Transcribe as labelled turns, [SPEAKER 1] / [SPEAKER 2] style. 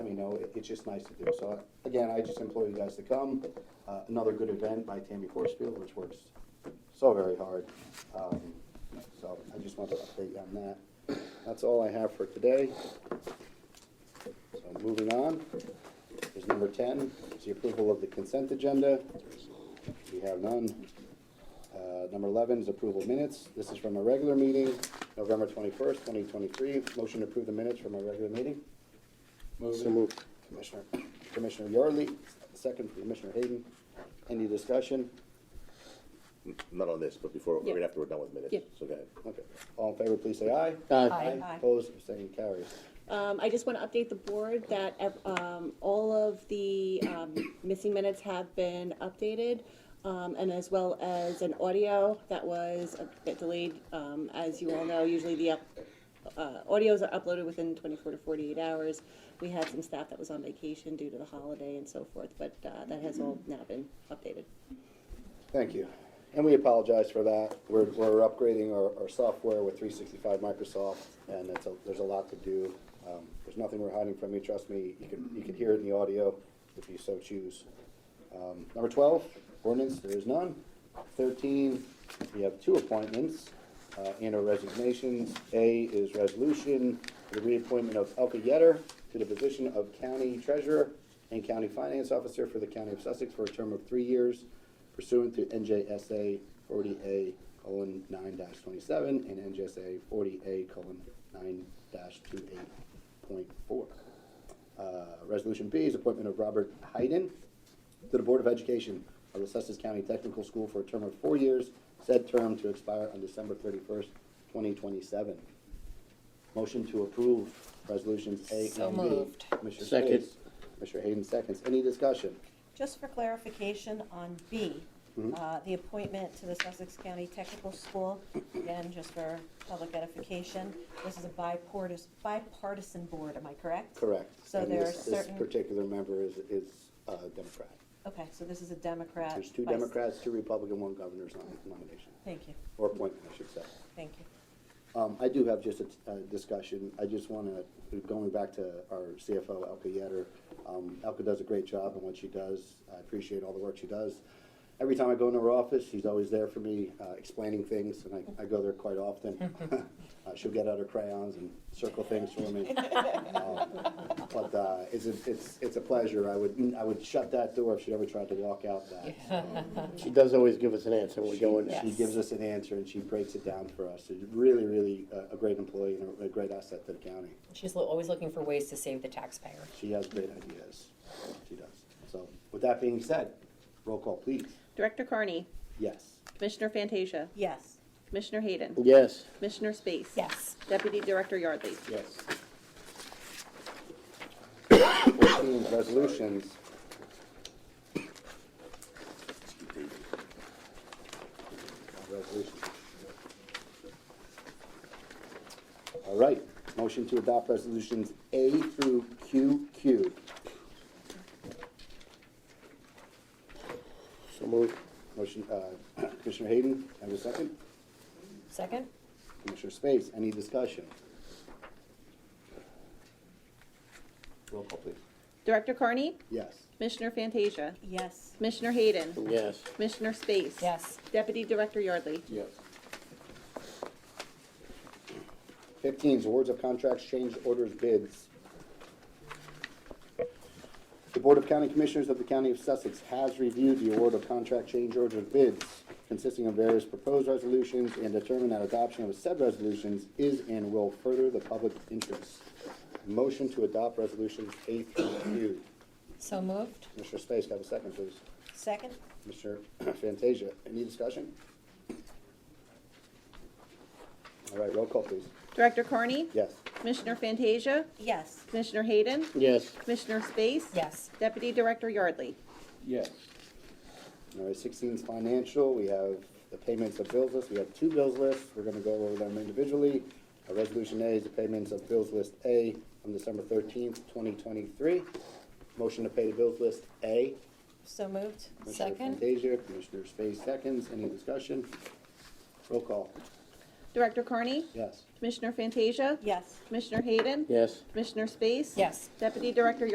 [SPEAKER 1] you know, it, it's just nice to do. So again, I just implore you guys to come. Uh, another good event by Tammy Forcefield, which works so very hard. Um, so I just wanted to update you on that. That's all I have for today. So moving on, is number ten, is the approval of the consent agenda. We have none. Uh, Number 11 is approval of minutes. This is from a regular meeting, November 21st, 2023. Motion to approve the minutes from a regular meeting.
[SPEAKER 2] So moved.
[SPEAKER 1] Commissioner, Commissioner Yardley, second from Commissioner Hayden. Any discussion?
[SPEAKER 2] Not on this, but before,
[SPEAKER 3] Yeah.
[SPEAKER 2] right after we're done with minutes,
[SPEAKER 3] Yeah.
[SPEAKER 2] so go ahead.
[SPEAKER 1] Okay. All in favor, please say aye.
[SPEAKER 3] Aye. Aye.
[SPEAKER 1] Opposed, abstaining, carries.
[SPEAKER 3] Um, I just want to update the board that, ev- um, all of the, um, missing minutes have been updated, um, and as well as an audio that was a bit delayed. Um, as you all know, usually the, up- uh, audios are uploaded within twenty-four to forty-eight hours. We had some staff that was on vacation due to the holiday and so forth, but, uh, that has all now been updated.
[SPEAKER 1] Thank you. And we apologize for that. We're, we're upgrading our, our software with 365 Microsoft, and it's a, there's a lot to do. Um, There's nothing we're hiding from you, trust me. You can, you can hear it in the audio if you so choose. Um, Number 12, ordinance, there is none. 13, we have two appointments uh, and our resignations. A is resolution for the reappointment of Elka Yetter to the position of county treasurer and county finance officer for the county of Sussex for a term of three years pursuant to NJSA forty A colon nine dash twenty-seven and NJSA forty A colon nine dash two eight point four. Uh, Resolution B is appointment of Robert Hayden to the Board of Education of the Sussex County Technical School for a term of four years, said term to expire on December thirty-first, twenty twenty-seven. Motion to approve resolutions A and B.
[SPEAKER 4] So moved.
[SPEAKER 1] Commissioner
[SPEAKER 5] Second.
[SPEAKER 1] Space, Commissioner Hayden seconds. Any discussion?
[SPEAKER 6] Just for clarification on B,
[SPEAKER 1] Mm-hmm.
[SPEAKER 6] uh, the appointment to the Sussex County Technical School, again, just for public edification, this is a bipartis- bipartisan board, am I correct?
[SPEAKER 1] Correct.
[SPEAKER 6] So
[SPEAKER 1] And
[SPEAKER 6] there are
[SPEAKER 1] this- This
[SPEAKER 6] certain,
[SPEAKER 1] particular member is, is uh, Democrat.
[SPEAKER 6] okay, so this is a Democrat.
[SPEAKER 1] There's two
[SPEAKER 6] vice-
[SPEAKER 1] Democrats, two Republican, one governor's nom- nomination,
[SPEAKER 6] Thank you,
[SPEAKER 1] or appointment, I should say.
[SPEAKER 6] thank you.
[SPEAKER 1] Um, I do have just a, t- a discussion, I just wanna, going back to our CFO, Elka Yetter, um, Elka does a great job in what she does, I appreciate all the work she does. Every time I go into her office, she's always there for me, uh, explaining things, and I, I go there quite often. Uh, she'll get out her crayons and circle things for me. Um, But, uh, it's, a- it's, it's a pleasure, I would, I would shut that door if she ever tried to walk out that, so.
[SPEAKER 5] She does always give us an answer when we
[SPEAKER 1] She,
[SPEAKER 5] go in.
[SPEAKER 1] she gives us an answer and she breaks it down for us. She's really, really uh, a, a great employee and a, a great asset to the county.
[SPEAKER 4] She's lo- always looking for ways to save the taxpayer.
[SPEAKER 1] She has great ideas. She does. So with that being said, roll call, please.
[SPEAKER 7] Director Carney,
[SPEAKER 1] Yes.
[SPEAKER 7] Commissioner Fantasia,
[SPEAKER 6] Yes,
[SPEAKER 7] Commissioner Hayden,
[SPEAKER 5] Yes,
[SPEAKER 7] Commissioner Space.
[SPEAKER 4] Yes.
[SPEAKER 7] Deputy Director Yardley.
[SPEAKER 1] Yes. Fourteen, resolutions. Resolutions. All right, motion to adopt resolutions A through QQ.
[SPEAKER 5] so moved.
[SPEAKER 1] Motion, uh, Commissioner Hayden, have a second?
[SPEAKER 4] Second?
[SPEAKER 1] Commissioner Space, any discussion? Roll call, please.
[SPEAKER 7] Director Carney,
[SPEAKER 1] Yes.
[SPEAKER 7] Commissioner Fantasia,
[SPEAKER 6] yes,
[SPEAKER 7] Commissioner Hayden,
[SPEAKER 5] Yes,
[SPEAKER 7] Commissioner Space.
[SPEAKER 4] Yes.
[SPEAKER 7] Deputy Director Yardley.
[SPEAKER 1] Yes. Fifteen is awards of contracts, change orders, bids. The Board of County Commissioners of the County of Sussex has reviewed the award of contract change orders bids consisting of various proposed resolutions and determined that adoption of said resolutions is and will further the public interest. Motion to adopt resolutions A through Q.
[SPEAKER 4] So moved?
[SPEAKER 1] Commissioner Space, have a second, please.
[SPEAKER 6] second,
[SPEAKER 1] Mr. Fantasia, any discussion? All right, roll call, please.
[SPEAKER 7] Director Carney.
[SPEAKER 1] Yes.
[SPEAKER 7] Commissioner Fantasia,
[SPEAKER 6] yes,
[SPEAKER 7] Commissioner Hayden,
[SPEAKER 5] yes,
[SPEAKER 7] Commissioner Space.
[SPEAKER 4] Yes.
[SPEAKER 7] Deputy Director Yardley.
[SPEAKER 1] All right, sixteen is financial, we have the payments of bills list, we have two bills lists, we're gonna go over them individually. Uh, Resolution A is the payments of bills list A on December thirteenth, twenty twenty-three. Motion to pay the bills list A.
[SPEAKER 6] so moved,
[SPEAKER 1] Commissioner
[SPEAKER 4] Second.
[SPEAKER 1] Fantasia, Commissioner Space seconds, any discussion? Roll call,
[SPEAKER 7] Director Carney,
[SPEAKER 1] yes.
[SPEAKER 7] Commissioner Fantasia,
[SPEAKER 6] yes.
[SPEAKER 7] Commissioner Hayden,
[SPEAKER 5] yes.
[SPEAKER 7] Commissioner Space.
[SPEAKER 4] Yes.
[SPEAKER 7] Deputy Director